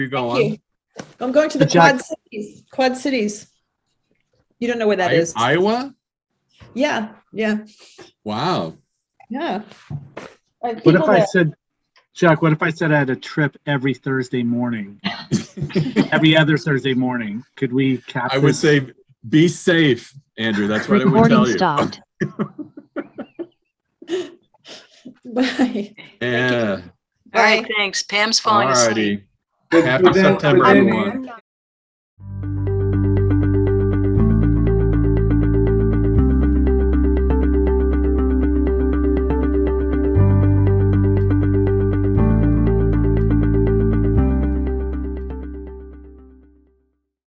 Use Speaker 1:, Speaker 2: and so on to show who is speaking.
Speaker 1: you
Speaker 2: Thank
Speaker 1: going?
Speaker 2: you. I'm going to the
Speaker 3: Good job.
Speaker 2: Quad Cities. Quad Cities. You don't know where that
Speaker 1: I-
Speaker 2: is.
Speaker 1: Iowa?
Speaker 2: yeah, yeah,
Speaker 1: Wow.
Speaker 2: yeah. Like,
Speaker 3: What
Speaker 2: people
Speaker 3: if I
Speaker 2: that-
Speaker 3: said, Chuck, what if I said I had a trip every Thursday morning? Every other Thursday morning? Could we cap
Speaker 1: I would
Speaker 3: this?
Speaker 1: say be safe, Andrew. That's what I would
Speaker 4: Recording
Speaker 1: tell you.
Speaker 4: stopped.
Speaker 2: Bye.
Speaker 1: Yeah.
Speaker 5: All right, thanks. Pam's falling asleep.
Speaker 1: Alrighty. Happy September,
Speaker 6: within-
Speaker 1: everyone.